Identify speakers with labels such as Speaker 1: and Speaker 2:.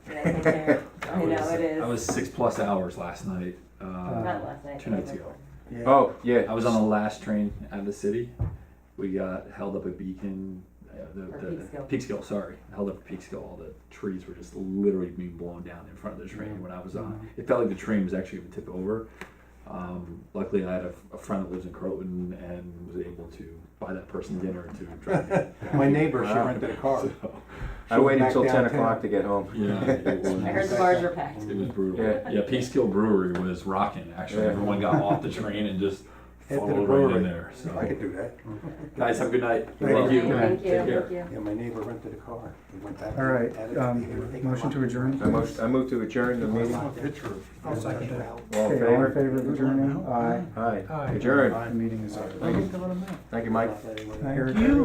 Speaker 1: but I don't care.
Speaker 2: I
Speaker 1: You know,
Speaker 2: was-
Speaker 1: it is.
Speaker 2: I was six plus hours last night. Uh,
Speaker 1: Not last night.
Speaker 2: Two
Speaker 1: the
Speaker 2: nights
Speaker 1: night
Speaker 2: ago.
Speaker 3: Yeah.
Speaker 4: Oh, yeah.
Speaker 2: I was on the last train out of the city. We got held up at Beacon, uh, the,
Speaker 1: Or
Speaker 2: the
Speaker 1: Peekskill.
Speaker 2: Peekskill, sorry, held up at Peekskill. All the trees were just literally being blown down in front of the train when I was on. It felt like the train was actually going to tip over. Um, luckily, I had a, a friend that lives in Croton and was able to buy that person dinner to drive. me.
Speaker 3: My neighbor, she
Speaker 4: Wow.
Speaker 3: rented a car.
Speaker 2: So,
Speaker 4: I waited
Speaker 3: Back
Speaker 4: until 10
Speaker 3: downtown.
Speaker 4: o'clock to get home.
Speaker 2: yeah, it was.
Speaker 1: before. I heard the bars were packed.
Speaker 2: It was brutal.
Speaker 4: Yeah.
Speaker 2: Yeah, Peekskill Brewery was rocking. Actually,
Speaker 4: Yeah.
Speaker 2: everyone got off the train and just
Speaker 3: Head to the
Speaker 2: followed right
Speaker 3: brewery.
Speaker 2: in there. So,
Speaker 3: I could do that.
Speaker 2: guys, have a good night.
Speaker 3: Thank
Speaker 2: Love
Speaker 3: you.
Speaker 2: you.
Speaker 1: Thank you,
Speaker 2: Take care.
Speaker 1: thank you.
Speaker 3: Yeah, my neighbor rented a car. We went back.
Speaker 5: All right,
Speaker 3: added to the area,
Speaker 5: um,
Speaker 3: take
Speaker 5: motion
Speaker 3: a
Speaker 5: to
Speaker 3: lot.
Speaker 5: adjourn,
Speaker 4: I
Speaker 5: please.
Speaker 4: most- I moved to adjourn the meeting. All
Speaker 3: I'll second that.
Speaker 5: Okay,
Speaker 4: in
Speaker 5: all in
Speaker 4: favor?
Speaker 5: favor of adjourning? Aye.
Speaker 4: Aye. Adjourn.
Speaker 5: The meeting is over.
Speaker 4: Thank you, Mike.
Speaker 3: Not letting one-
Speaker 5: Eric?